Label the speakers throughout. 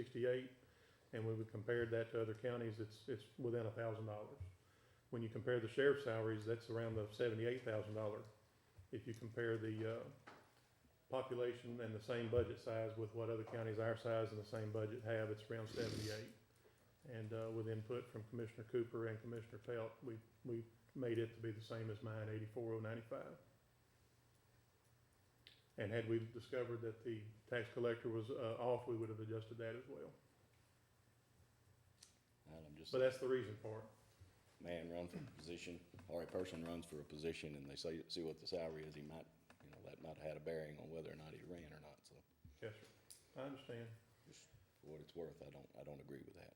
Speaker 1: sixty-eight, and we would compare that to other counties, it's, it's within a thousand dollars. When you compare the sheriff's salaries, that's around the seventy-eight thousand dollar. If you compare the, uh, population and the same budget size with what other counties our size and the same budget have, it's around seventy-eight. And, uh, with input from Commissioner Cooper and Commissioner Pelt, we, we made it to be the same as mine, eighty-four oh ninety-five. And had we discovered that the tax collector was, uh, off, we would have adjusted that as well.
Speaker 2: And I'm just,
Speaker 1: But that's the reason for it.
Speaker 2: a man run for a position, or a person runs for a position and they say, see what the salary is, he might, you know, that might have had a bearing on whether or not he ran or not, so
Speaker 1: Yes, sir. I understand.
Speaker 2: for what it's worth, I don't, I don't agree with that.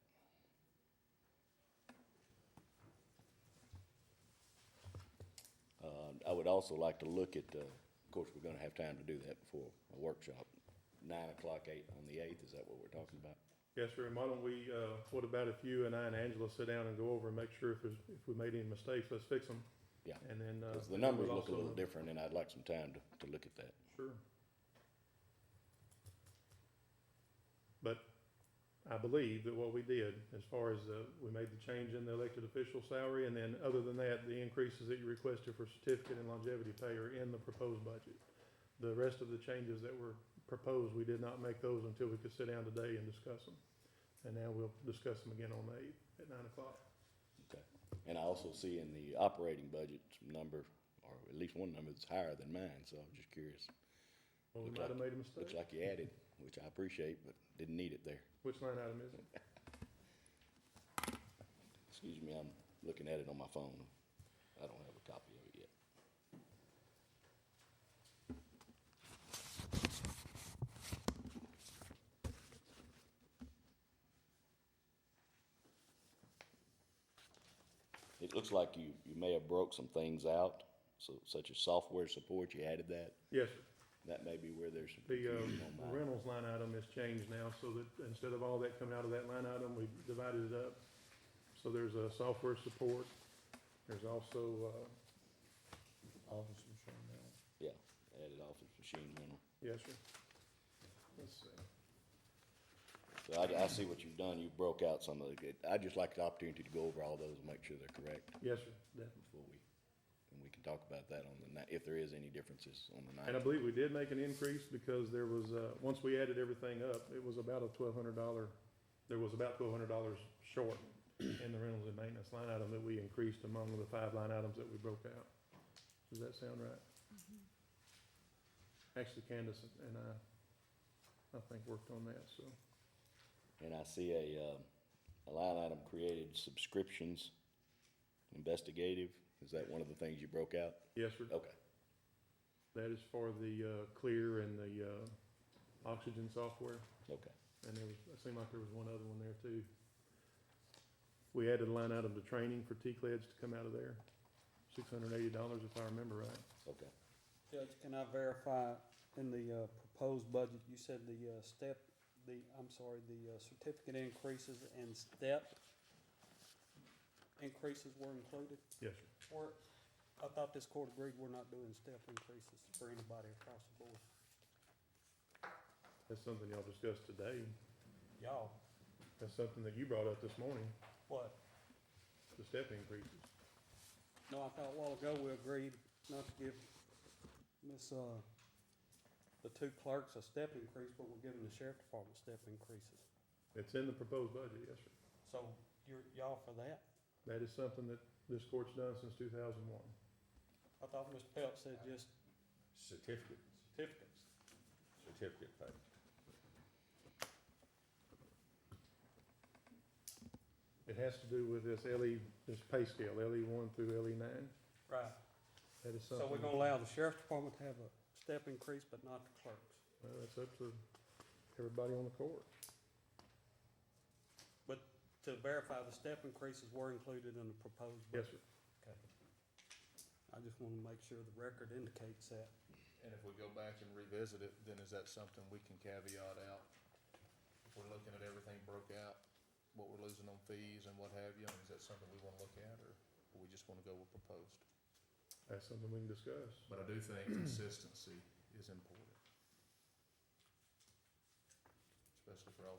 Speaker 2: Uh, I would also like to look at, uh, of course, we're gonna have time to do that before a workshop, nine o'clock, eight on the eighth, is that what we're talking about?
Speaker 1: Yes, sir. And why don't we, uh, what about if you and I and Angela sit down and go over and make sure if there's, if we made any mistakes, let's fix them.
Speaker 2: Yeah.
Speaker 1: And then, uh.
Speaker 2: Because the
Speaker 1: we'll
Speaker 2: numbers look a
Speaker 1: also-
Speaker 2: little different, and I'd like some time to, to look at that.
Speaker 1: Sure. But I believe that what we did, as far as, uh, we made the change in the elected official salary, and then other than that, the increases that you requested for certificate and longevity pay are in the proposed budget. The rest of the changes that were proposed, we did not make those until we could sit down today and discuss them. And now we'll discuss them again on the eighth at nine o'clock.
Speaker 2: And I also see in the operating budget number, or at least one number that's higher than mine, so I'm just curious.
Speaker 1: Well, we
Speaker 2: Looks
Speaker 1: might have made a
Speaker 2: Looks
Speaker 1: mistake.
Speaker 2: like you added, which I appreciate, but didn't need it there.
Speaker 1: Which line item is it?
Speaker 2: Excuse me, I'm looking at it on my phone. I don't have a copy of it yet. It looks like you, you may have broke some things out, so such as software support, you added that.
Speaker 1: Yes, sir.
Speaker 2: That may be where there's some
Speaker 1: The uh,
Speaker 2: confusion on
Speaker 1: the
Speaker 2: mine.
Speaker 1: rentals line item is changed now, so that instead of all that coming out of that line item, we've divided it up. So there's a software support, there's also, uh,
Speaker 3: Office machine now.
Speaker 2: Yeah, added office machine rental.
Speaker 1: yes, sir. Let's see.
Speaker 2: So I, I see what you've done. You broke out some of the, I'd just like the opportunity to go over all those and make sure they're correct
Speaker 1: Yes, sir, definitely.
Speaker 2: before we, and we can talk about that on the night, if there is any differences on the
Speaker 1: And I
Speaker 2: night.
Speaker 1: believe we did make an increase because there was, uh, once we added everything up, it was about a twelve hundred dollar, there was about twelve hundred dollars short in the rentals and maintenance line item that we increased among the five line items that we broke out. Does that sound right? Actually, Candace and I, I think worked on that, so.
Speaker 2: And I see a, um, a line item created, subscriptions, investigative. Is that one of the things you broke out?
Speaker 1: Yes, sir.
Speaker 2: Okay,
Speaker 1: That is for the, uh, clear and the, uh, oxygen software.
Speaker 2: okay.
Speaker 1: And there was, it seemed like there was one other one there too. We added a line item to training for T-CLEDs to come out of there, six hundred and eighty dollars if I remember right.
Speaker 2: Okay.
Speaker 3: Judge, can I verify in the uh, proposed budget, you said the uh, step, the, I'm sorry, the uh, certificate increases and step increases were included?
Speaker 1: Yes, sir.
Speaker 3: Or, I thought this court agreed we're not doing step increases for anybody across the board.
Speaker 1: That's something y'all discussed today.
Speaker 3: Y'all,
Speaker 1: That's something that you brought up this morning,
Speaker 3: what?
Speaker 1: the step increases.
Speaker 3: No, I thought a while ago we agreed not to give Miss, uh, the two clerks a step increase, but we're giving the sheriff department step increases.
Speaker 1: It's in the proposed budget, yes, sir.
Speaker 3: So you're, y'all for that?
Speaker 1: That is something that this court's done since two thousand one.
Speaker 3: I thought Ms. Pelt said just
Speaker 4: Certificate,
Speaker 3: certificates.
Speaker 4: certificate pay.
Speaker 1: It has to do with this LE, this pay scale, LE one through LE nine.
Speaker 3: Right.
Speaker 1: That is something.
Speaker 3: So we're gonna allow the sheriff's department to have a step increase, but not the clerks.
Speaker 1: Well, that's up to everybody on the court.
Speaker 3: To verify the step increases were included in the proposed
Speaker 1: Yes,
Speaker 3: budget.
Speaker 1: sir.
Speaker 3: Okay. I just wanna make sure the record indicates that.
Speaker 5: And if we go back and revisit it, then is that something we can caveat out? If we're looking at everything broke out, what we're losing on fees and what have you, and is that something we wanna look at, or or we just wanna go with proposed?
Speaker 1: That's something we can discuss.
Speaker 5: But I do think consistency is important. Especially for all